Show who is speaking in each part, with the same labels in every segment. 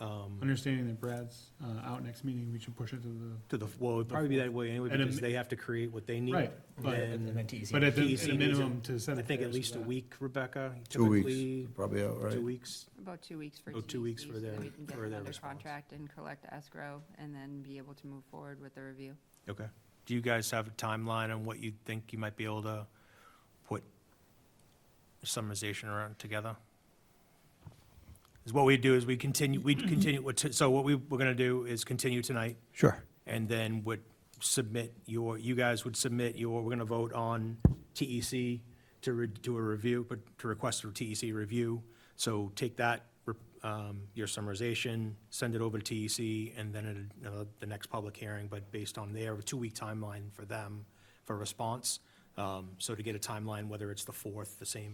Speaker 1: um,
Speaker 2: understanding that Brad's uh, out next meeting, we should push it to the,
Speaker 1: To the, well, it'd probably be that way anyway,
Speaker 2: And a
Speaker 1: because
Speaker 2: mi-
Speaker 1: they have to create what they need.
Speaker 2: right, but,
Speaker 1: And
Speaker 3: then TEC
Speaker 2: but at the,
Speaker 1: TEC
Speaker 2: at a
Speaker 1: needs it.
Speaker 2: minimum to set.
Speaker 1: I
Speaker 2: it
Speaker 1: think
Speaker 2: there
Speaker 1: at
Speaker 2: so
Speaker 1: least a
Speaker 2: that-
Speaker 1: week, Rebecca,
Speaker 4: Two
Speaker 1: typically,
Speaker 4: weeks, probably out, right?
Speaker 1: two weeks.
Speaker 5: About two weeks for
Speaker 1: Oh, two weeks
Speaker 5: TEC,
Speaker 1: for
Speaker 5: so
Speaker 1: their-
Speaker 5: that we can get
Speaker 1: for
Speaker 5: them
Speaker 1: their
Speaker 5: under
Speaker 1: response.
Speaker 5: contract and collect escrow, and then be able to move forward with the review.
Speaker 1: Okay.
Speaker 6: Do you guys have a timeline on what you think you might be able to put summarization around together? Is what we do is we continue, we continue, what t- so what we, we're gonna do is continue tonight,
Speaker 4: Sure.
Speaker 6: and then would submit your, you guys would submit your, we're gonna vote on TEC to re, do a review, but to request a TEC review. So take that, re- um, your summarization, send it over to TEC, and then at, uh, the next public hearing, but based on their two-week timeline for them for response. Um, so to get a timeline, whether it's the fourth, the same,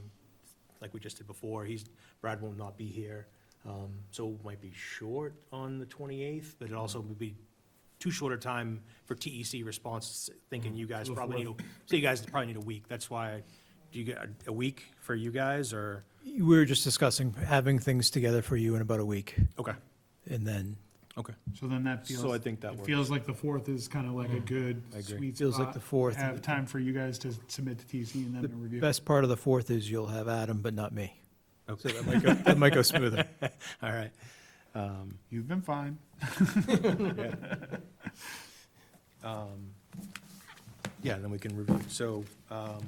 Speaker 6: like we just did before, he's, Brad will not be here. Um, so it might be short on the twenty-eighth, but it also would be too short a time for TEC response, thinking you guys probably need, a- so you guys probably need a week. That's why, do you get a- a week for you guys, or?
Speaker 4: We were just discussing having things together for you in about a week,
Speaker 6: Okay,
Speaker 4: and then
Speaker 6: okay.
Speaker 2: So then that feels.
Speaker 1: So I think that
Speaker 2: It
Speaker 1: works. Mm-hmm.
Speaker 2: feels like the fourth is kind of like a good
Speaker 1: I agree.
Speaker 2: sweet
Speaker 4: feels like
Speaker 2: spot.
Speaker 4: the fourth.
Speaker 2: Have time for you guys to submit to TC and then
Speaker 4: The
Speaker 2: to review.
Speaker 4: best part of the fourth is you'll have Adam, but not me. So
Speaker 6: Okay,
Speaker 4: that might go, that might go smoother.
Speaker 6: all right. Um,
Speaker 2: You've been fine.
Speaker 6: um, Yeah, then we can review. So, um,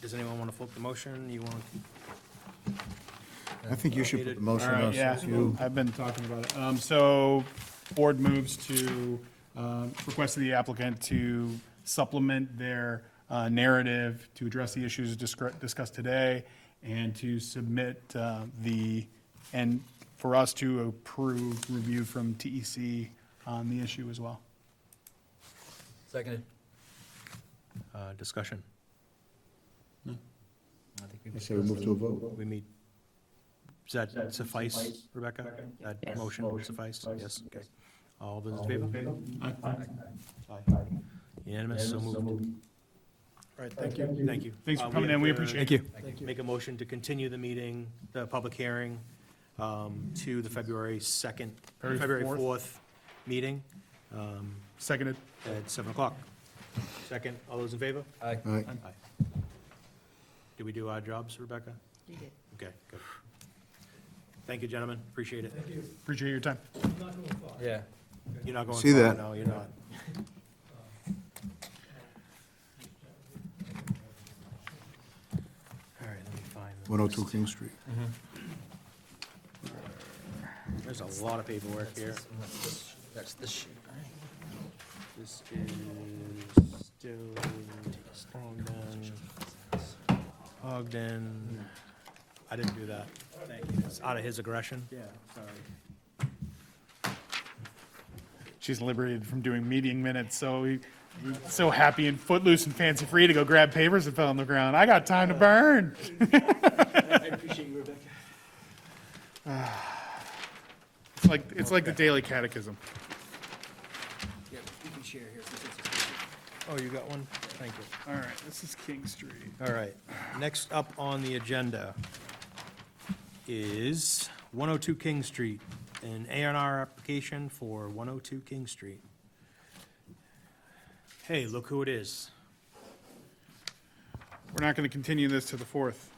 Speaker 6: does anyone want to flip the motion? You want,
Speaker 4: I think you should put the motion
Speaker 2: All right,
Speaker 4: on,
Speaker 2: yeah,
Speaker 4: since you,
Speaker 2: I've been talking about it. Um, so, board moves to, um, request of the applicant to supplement their, uh, narrative to address the issues discre- discussed today and to submit, uh, the, and for us to approve review from TEC on the issue as well.
Speaker 3: Seconded.
Speaker 6: uh, discussion?
Speaker 3: I think
Speaker 4: I
Speaker 3: we've
Speaker 4: say we move to a vote.
Speaker 6: We meet, does that suffice, Rebecca? That motion would suffice? Yes, okay. All those in favor? Aye. Unanimous, so moved. All right, thank you. Thank you.
Speaker 2: Thanks for
Speaker 6: Uh,
Speaker 2: coming in,
Speaker 6: have
Speaker 2: we
Speaker 6: to
Speaker 2: appreciate it.
Speaker 4: Thank you.
Speaker 6: Make a motion to continue the meeting, the public hearing, um, to the February 2nd,
Speaker 2: February
Speaker 6: February
Speaker 2: fourth.
Speaker 6: 4th meeting um,
Speaker 2: Seconded.
Speaker 6: at 7 o'clock. Second, all those in favor?
Speaker 3: Aye.
Speaker 4: All right.
Speaker 6: Aye. Did we do our jobs, Rebecca?
Speaker 5: You did.
Speaker 6: Okay, good. Thank you, gentlemen, appreciate it.
Speaker 2: Appreciate your time.
Speaker 3: Yeah.
Speaker 6: You're not going
Speaker 4: See
Speaker 6: far,
Speaker 4: that.
Speaker 6: no, you're not. All right, let me find. the
Speaker 4: 102 King Street.
Speaker 6: There's a lot of paperwork here.
Speaker 3: That's the shit.
Speaker 6: This is still Ogden. Ogden. I didn't do that. Thank you. It's out of his aggression.
Speaker 1: Yeah, sorry.
Speaker 2: She's liberated from doing meeting minutes, so we, we're so happy and footloose and fancy free to go grab papers and fell on the ground. I got time to burn.
Speaker 6: I appreciate you, Rebecca.
Speaker 2: It's like, it's like the daily catechism.
Speaker 3: Yeah, you can share here.
Speaker 6: Oh, you got one? Thank you.
Speaker 2: All right, this is King Street.
Speaker 6: All right. Next up on the agenda is 102 King Street, an A and R application for 102 King Street. Hey, look who it is.
Speaker 2: We're not gonna continue this to the fourth.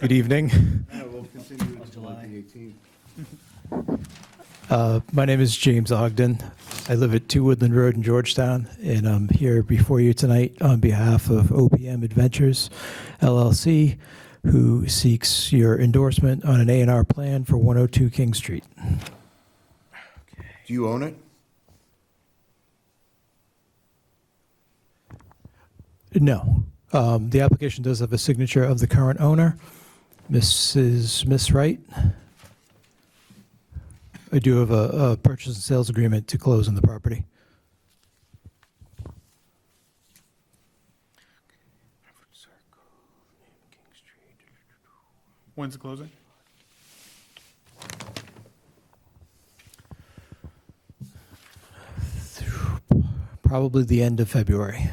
Speaker 4: Good evening. we'll continue until like the 18th.
Speaker 7: My name is James Ogden. I live at 2 Woodland Road in Georgetown, and I'm here before you tonight on behalf of OPM Adventures LLC, who seeks your endorsement on an A&R plan for 102 King Street.
Speaker 4: Do you own it?
Speaker 7: No. Um, The application does have a signature of the current owner, Mrs. Miss Wright. I do have a a purchase and sales agreement to close on the property.
Speaker 2: When's the closing?
Speaker 7: Probably the end of February.